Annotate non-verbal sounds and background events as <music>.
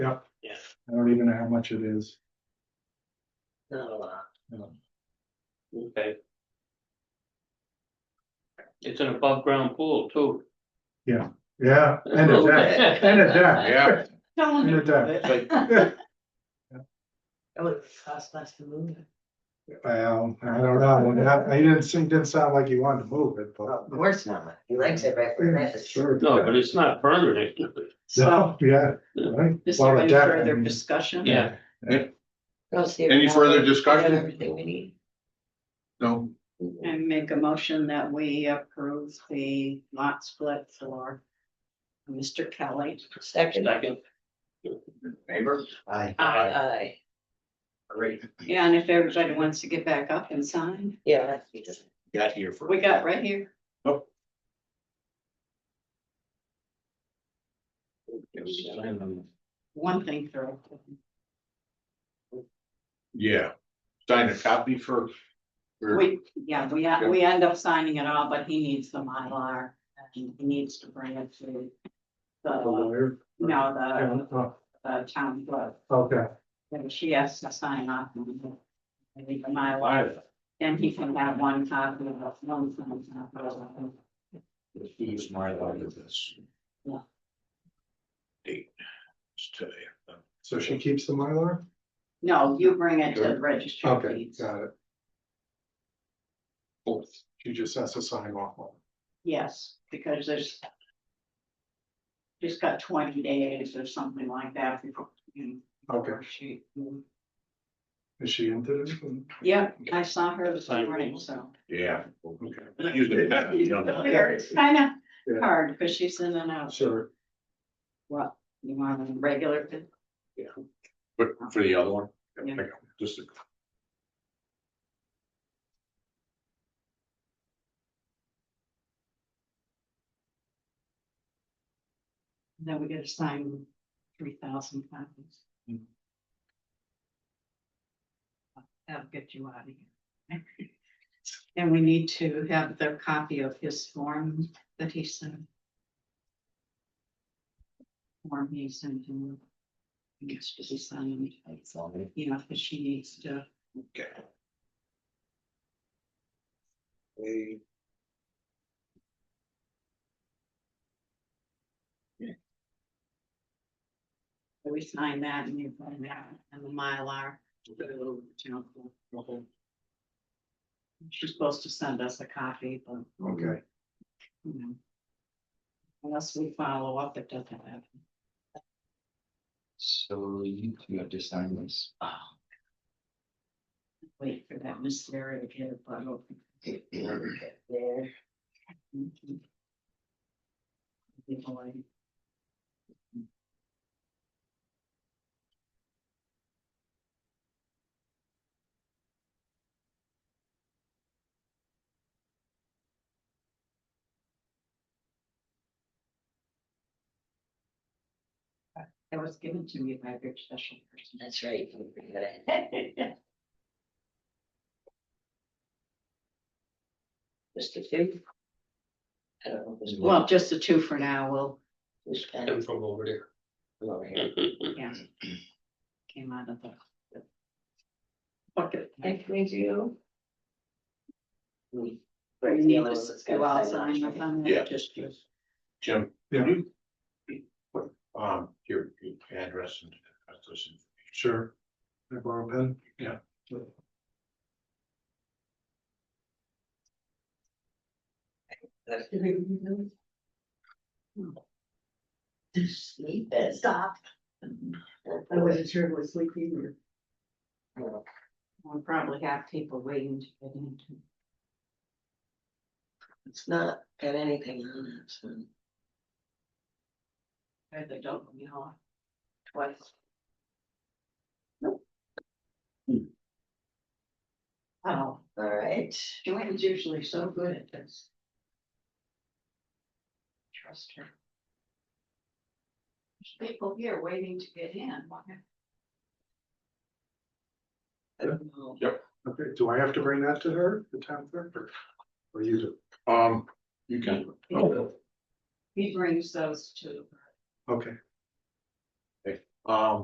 I don't even know how much it is. Not a lot. No. Okay. It's an above ground pool too. Yeah, and a deck, and a <laughs> deck. Telling And a deck. That would cost us to move it. Well, I don't know, that, he didn't seem, didn't sound like he wanted to move it, Of but. course not. He likes it right where it is. Sure. No, but it's not permanent. So, Yeah, right. is Well, there a any deck, I further mean, discussion? Yeah. Go see if Any now further we have discussion? Everything we need. No, I make a motion that we approve the lot split for Mr. Kelly. Second. Second, neighbor? Aye. Aye. Aye. Great, Yeah, Uh, and if everybody wants to get back up and sign, Yeah. that's- got here for. we got right here. One thing through. Yeah, sign a copy for. for- We, yeah, we, we end up signing it all, but he needs the Mylar and he needs to bring it to the the, lawyer. no, Yeah, the, oh, the town clerk. Okay, And she has to sign off on it. I think the Mylar. And he can have one copy of the one copy. He's my lawyer with this. Date. It's today. so she keeps the Mylar? No, you bring it to the Sure. registry of Okay, deeds. got it. Fourth, she just has to sign off on. it. Yes, because there's. Just got twenty days or something like that before. you- Okay. before she- Is she into this? one? Yeah, I saw her this morning, so. Yeah. Okay. Use the pen, <laughs> you know. It's kind Yeah. of hard because she's in and out. Sure. What, you want a regular? But for the other one. Yeah. Okay, Just. a- Then we get assigned three thousand copies. Mm. That'll get you out of here. <laughs> And we need to have the copy of his form that he sent. Form he sent him. I guess to be signed, you know, because she needs to, Okay. Hey. we sign that and you find that and the Mylar. to the town clerk. She's supposed to send us a copy, but. Okay, you know. Mm-hmm. Unless we follow up, it doesn't happen. So you two have to sign this. Wait for that Miss Sarah to get a bottle. There. That was given to me by a very special person. That's <laughs> right. Just a few. I don't know. who's- Well, just the two for now, we'll, Who's pen and is from over there. over here? yeah. Came out of the. the Bucket. If we do. Hmm. We. We need to go outside and find Yeah. that, just, just. Jim. Yeah. you- put, Um, your, your address and. address and- sure. Can I borrow a pen? Yeah. <laughs> Sleep is. Stop. I wasn't sure it was sleeping or. We'll probably have people waiting to get into. It's not got anything on it, so. Or they don't, you know, twice. Nope. Hmm. Oh, All right. Joanne's usually so good at this. Trust her. There's people here waiting to get in. Why- I don't know. Okay, do I have to bring that to her, the town clerk, or, or you do? Um, you can. He brings those to. Okay. Um,